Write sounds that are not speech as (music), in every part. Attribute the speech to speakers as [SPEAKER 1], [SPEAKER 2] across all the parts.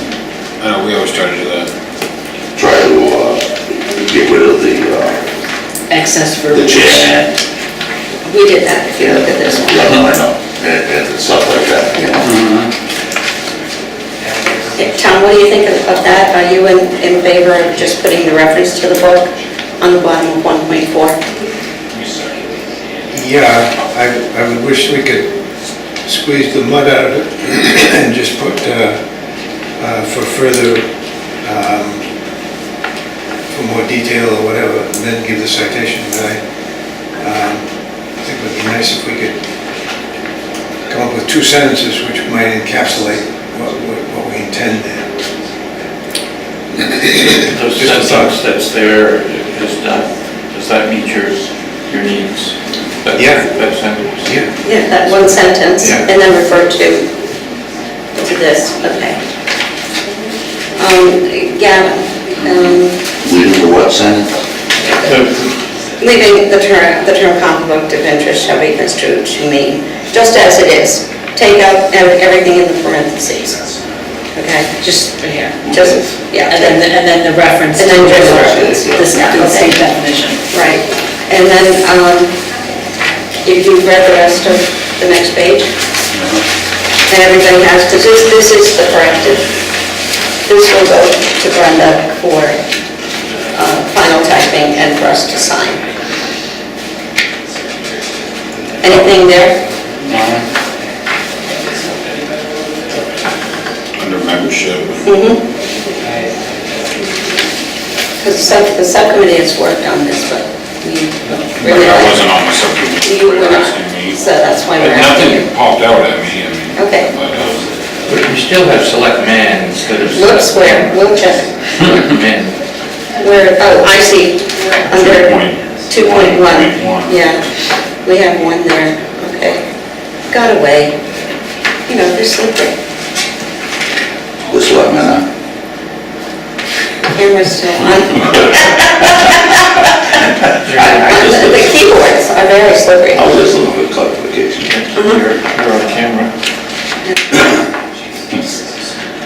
[SPEAKER 1] I know, Uh, we always try to do that.
[SPEAKER 2] try to, uh, get rid of the, uh,
[SPEAKER 3] Excess
[SPEAKER 2] the
[SPEAKER 3] verbiage.
[SPEAKER 2] jet.
[SPEAKER 3] We did that, if you look at this one.
[SPEAKER 2] Yeah, no, I know, and, and stuff like that, you know.
[SPEAKER 3] Yeah, Tom, what do you think of of that? Are you in, in favor of just putting the reference to the book on the bottom of 1.4?
[SPEAKER 4] Yeah, I, I would wish we could squeeze the mud out of it (coughs) and just put, uh, uh, for further, um, for more detail or whatever, and then give the citation, but I, um, I think it would be nice if we could come up with two sentences which might encapsulate what, what- what we intend there.
[SPEAKER 5] The sentence that's there is not, does that meet your, your needs? That-
[SPEAKER 4] Yeah.
[SPEAKER 5] That sentence?
[SPEAKER 4] Yeah.
[SPEAKER 3] Yeah. That one sentence,
[SPEAKER 5] Yeah.
[SPEAKER 3] and then refer to, to this, okay. Um, Gavin, um,
[SPEAKER 2] Leaving the what sentence?
[SPEAKER 5] The-
[SPEAKER 3] leaving the term, the term conflict of interest shall be construed to mean, just as it is, take out ev- everything in the parentheses, okay? Just,
[SPEAKER 6] Yeah.
[SPEAKER 3] just, yeah.
[SPEAKER 6] And then, and then the reference to
[SPEAKER 3] And then just
[SPEAKER 6] the
[SPEAKER 3] reference.
[SPEAKER 6] the state definition.
[SPEAKER 3] Right, and then, um, if you've read the rest of the next page, and everything has, because this, this is the corrected, this will go to Brenda for uh, final typing and for us to sign. Anything there?
[SPEAKER 1] Under membership,
[SPEAKER 3] Because the subcommittee has worked on this, but we
[SPEAKER 1] but
[SPEAKER 3] really,
[SPEAKER 1] I
[SPEAKER 3] like-
[SPEAKER 1] wasn't on the subject,
[SPEAKER 3] you
[SPEAKER 1] you
[SPEAKER 3] were
[SPEAKER 1] were
[SPEAKER 3] not,
[SPEAKER 1] asking me.
[SPEAKER 3] so that's why we're
[SPEAKER 1] But
[SPEAKER 3] asking you.
[SPEAKER 1] nothing popped out at me, I mean.
[SPEAKER 3] Okay.
[SPEAKER 1] but, uh,
[SPEAKER 5] But you still have select man instead of. select
[SPEAKER 3] Looks where, we'll check.
[SPEAKER 5] Men.
[SPEAKER 3] Where, oh, I see, under 2.1.
[SPEAKER 1] 2.1.
[SPEAKER 3] Yeah, we have one there, okay. Got away. You know, they're slippery.
[SPEAKER 2] This what, man?
[SPEAKER 3] Camera's still on.
[SPEAKER 2] I, I just,
[SPEAKER 3] The
[SPEAKER 2] looked-
[SPEAKER 3] keyboards are very slippery.
[SPEAKER 2] I was just looking for clarification.
[SPEAKER 5] You're, you're on camera.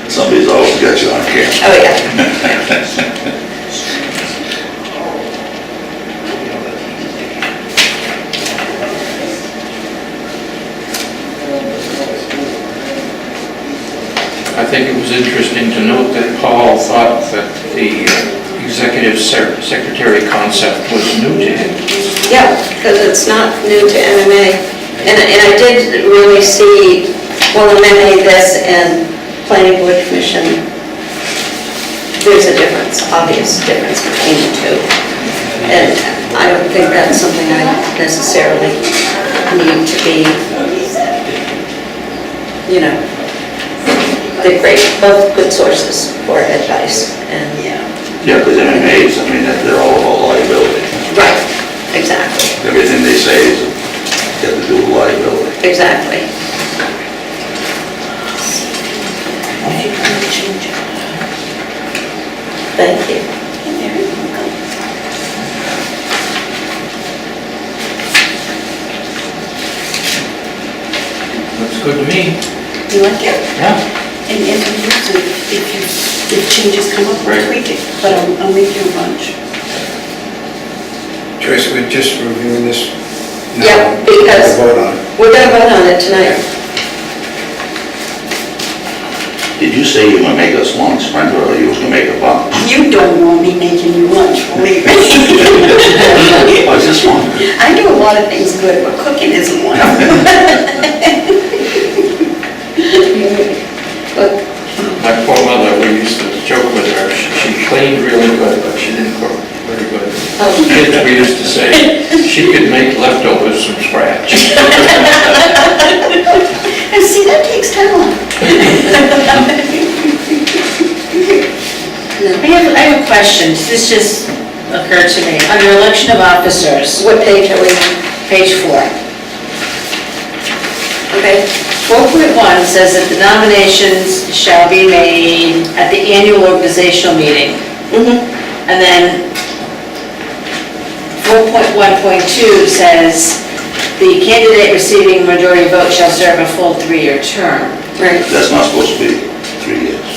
[SPEAKER 2] Somebody's always got you on camera.
[SPEAKER 3] Oh, yeah.
[SPEAKER 5] I think it was interesting to note that Paul thought that the uh, executive sec- secretary concept was new to him.
[SPEAKER 3] Yeah, because it's not new to MMA. And, and I did really see, well, MMA this and planning board commission, there's a difference, obvious difference between the two. And I don't think that's something I necessarily need to be, you know, they're great, both good sources for advice and.
[SPEAKER 2] Yeah, because MMA's, I mean, they're all about liability.
[SPEAKER 3] Right, exactly,
[SPEAKER 2] Everything they say is, got to do with liability.
[SPEAKER 3] exactly. Thank you.
[SPEAKER 5] Looks good to me.
[SPEAKER 7] You like it?
[SPEAKER 5] Yeah.
[SPEAKER 7] And if you need to, if you, if changes come up, we'll
[SPEAKER 5] Right.
[SPEAKER 7] tweak it, but I'll, I'll make you a bunch.
[SPEAKER 4] Joyce, we're just reviewing this now.
[SPEAKER 3] Yeah, because-
[SPEAKER 4] We'll Vote on it.
[SPEAKER 3] We're gonna vote on it tonight.
[SPEAKER 2] Did you say you were gonna make us lunch, Brenda, or you was gonna make a bunch?
[SPEAKER 7] You don't want me making you lunch, believe me. (laughs)
[SPEAKER 2] I was Oh, just wondering.
[SPEAKER 7] I do a lot of things good, but cooking isn't
[SPEAKER 4] (laughs)
[SPEAKER 7] one of them.
[SPEAKER 3] Look,
[SPEAKER 5] My poor mother, we used to joke with her, she she cleaned really good, but she didn't cook very good.
[SPEAKER 3] Oh.
[SPEAKER 5] Kids, we used to say, she could make leftovers from scratch.
[SPEAKER 7] And see, that takes talent.
[SPEAKER 6] I have, I have a question, this just occurred to me, under election of officers,
[SPEAKER 3] What page are we on?
[SPEAKER 6] page four.
[SPEAKER 3] Okay,
[SPEAKER 6] 4.1 says that the nominations shall be made at the annual organizational meeting.
[SPEAKER 7] Mm-hmm.
[SPEAKER 6] And then 4.1.2 says, "The candidate receiving majority vote shall serve a full three-year term."
[SPEAKER 3] right.
[SPEAKER 2] That's not supposed to be three years.